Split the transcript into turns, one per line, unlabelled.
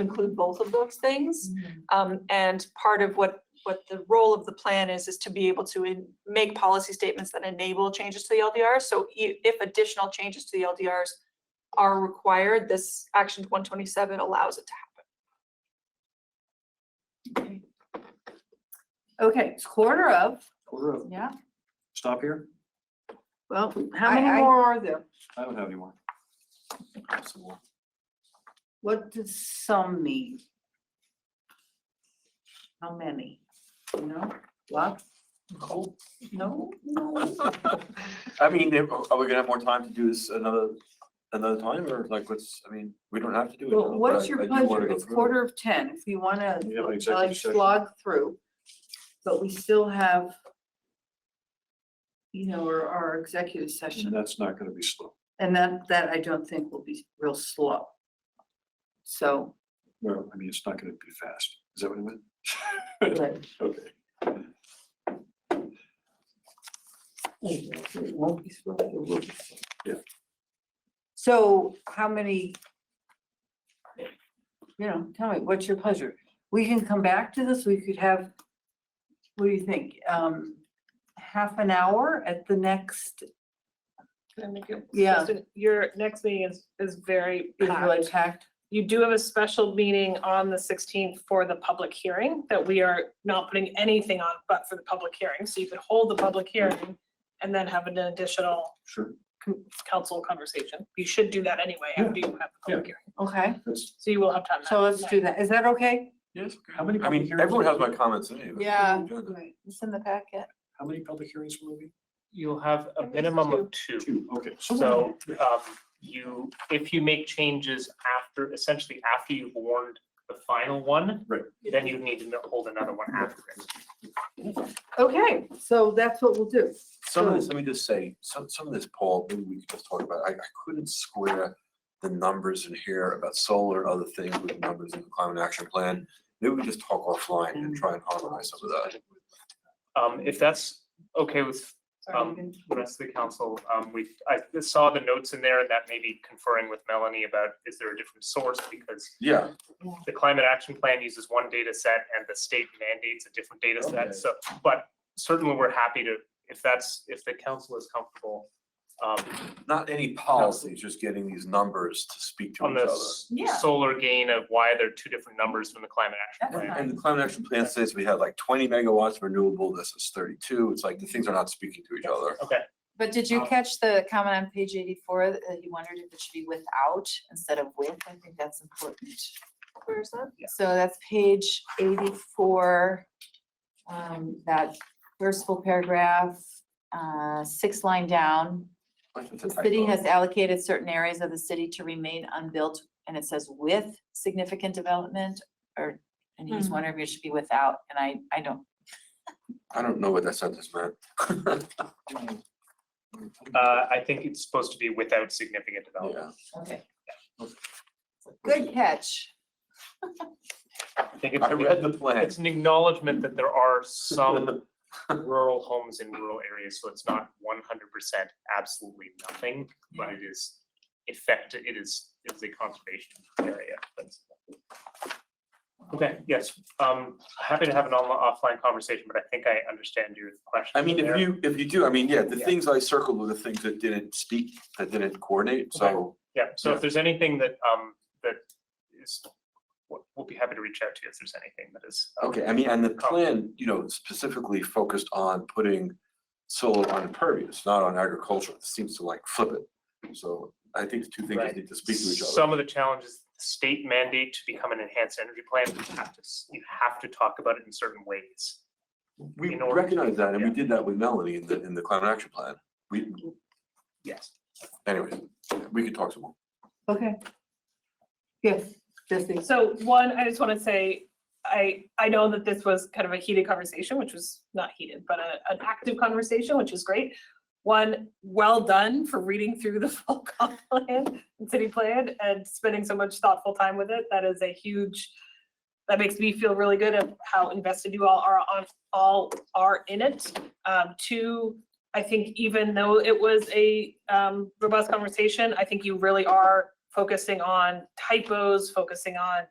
include both of those things. Um, and part of what, what the role of the plan is, is to be able to en- make policy statements that enable changes to the LDR. So i- if additional changes to the LDRs are required, this action one twenty-seven allows it to happen.
Okay, it's quarter of,
Quarter of,
yeah,
stop here?
well, how many
I- I-
more are there?
I don't have any more.
What does some mean? How many? You know, lots? No, no.
I mean, if- are we gonna have more time to do this another, another time, or like, what's, I mean, we don't have to do it.
Well,
now,
what's
but
your
I do wanna
pleasure?
go
It's
through it.
quarter of ten, if you wanna
We have an
like
executive session.
slog through. But we still have. You know, our, our executive
And
session,
that's not gonna be slow.
and that, that I don't think will be real slow. So,
No, I mean, it's not gonna be fast. Is that what it meant?
but
Okay.
it won't be slow, it will be. slow.
Yeah.
So how many? You know, tell me, what's your pleasure? We can come back to this, we could have, what do you think, um, half an hour at the next, yeah, is
Kristen, Your next meeting is, is very
really
packed.
packed.
You do have a special meeting on the sixteenth for the public hearing that we are not putting anything on but for the public hearing. So you could hold the public hearing and then have an additional
Sure,
con- council conversation. You should do that anyway after you have the public hearing.
Okay,
that's,
So you will have time.
so let's do that. Is that okay?
yes, how many?
I
public
mean,
hearings-
everyone has my comments anyway.
Yeah.
Do that.
It's in the packet.
How many public hearings will be?
You'll have a
think it's
minimum of two.
Two, okay.
So um, you, if you make changes after, essentially after you've warned the final one.
Right.
Then you need to no- hold another one after it.
Okay, so that's what we'll do.
Some of
So-
this, let me just say, some, some of this, Paul, maybe we could just talk about, I, I couldn't square the numbers in here about solar and other things with the numbers in the climate action plan. Maybe we just talk offline and try and harmonize some of that.
Um, If that's okay with
Sorry,
Um,
you
the rest of the council, um, we, I saw the notes in there and that may be conferring with Melanie about, is there a different source? Because
Yeah,
the climate action plan uses one data set and the state mandates a different data
Okay.
set, so, but certainly we're happy to, if that's, if the council is comfortable. Um,
not any policies, just getting these numbers to speak to
on
each
the
other.
s-
Yeah.
solar gain of why there are two different numbers from the climate action
That's
plan.
fine.
And the climate action plan says we have like twenty megawatts renewable, this is thirty-two, it's like the things are not speaking to each other.
Okay,
But did
Oh.
you
Um,
catch the comment on page eighty-four that you wondered if it should be without instead of with? I think that's important.
Where is that?
So that's page eighty-four. Um, that first full paragraph, uh, six line down.
Like, it's a
The city
typo.
has allocated certain areas of the city to remain unbuilt, and it says with significant development or, and he was
Mhm.
wondering if it should be without, and I, I don't.
I don't know what that sentence meant.
uh, I think it's supposed to be without significant development.
Yeah,
Okay.
Good catch.
I think it's,
I read the plan.
it's an acknowledgement that there are some rural homes in rural areas, so it's not one hundred percent absolutely nothing, but it is effect, it is, it's a conservation area. that's- Okay, yes, um, happy to have an online, offline conversation, but I think I understand your question.
I mean,
there.
if you, if you do, I mean, yeah, the
Yeah.
things I circled were the things that didn't speak, that didn't coordinate, so.
Yeah, so
Yeah.
if there's anything that, um, that is, we'll, we'll be happy to reach out to you if there's anything that is. um,
Okay, I mean, and the
Oh.
plan, you know, specifically focused on putting solar on impervious, not on agriculture, it seems to like flip it. So I think the two things
Right.
need to speak to each other.
Some of the challenges, the state mandate to become an enhanced energy plan, you have to, s- you have to talk about it in certain ways.
We
in order-
recognize that, and we
yeah.
did that with Melanie in the, in the climate action plan. We,
Yes.
anyways, we could talk some more.
Okay. Yes, Jesse.
So one, I just want to say, I, I know that this was kind of a heated conversation, which was not heated, but a, an active conversation, which is great. One, well done for reading through the full comp plan, and city plan, and spending so much thoughtful time with it. That is a huge, that makes me feel really good of how invested you all are on, all are in it. Um, two, I think even though it was a um, robust conversation, I think you really are focusing on typos, focusing on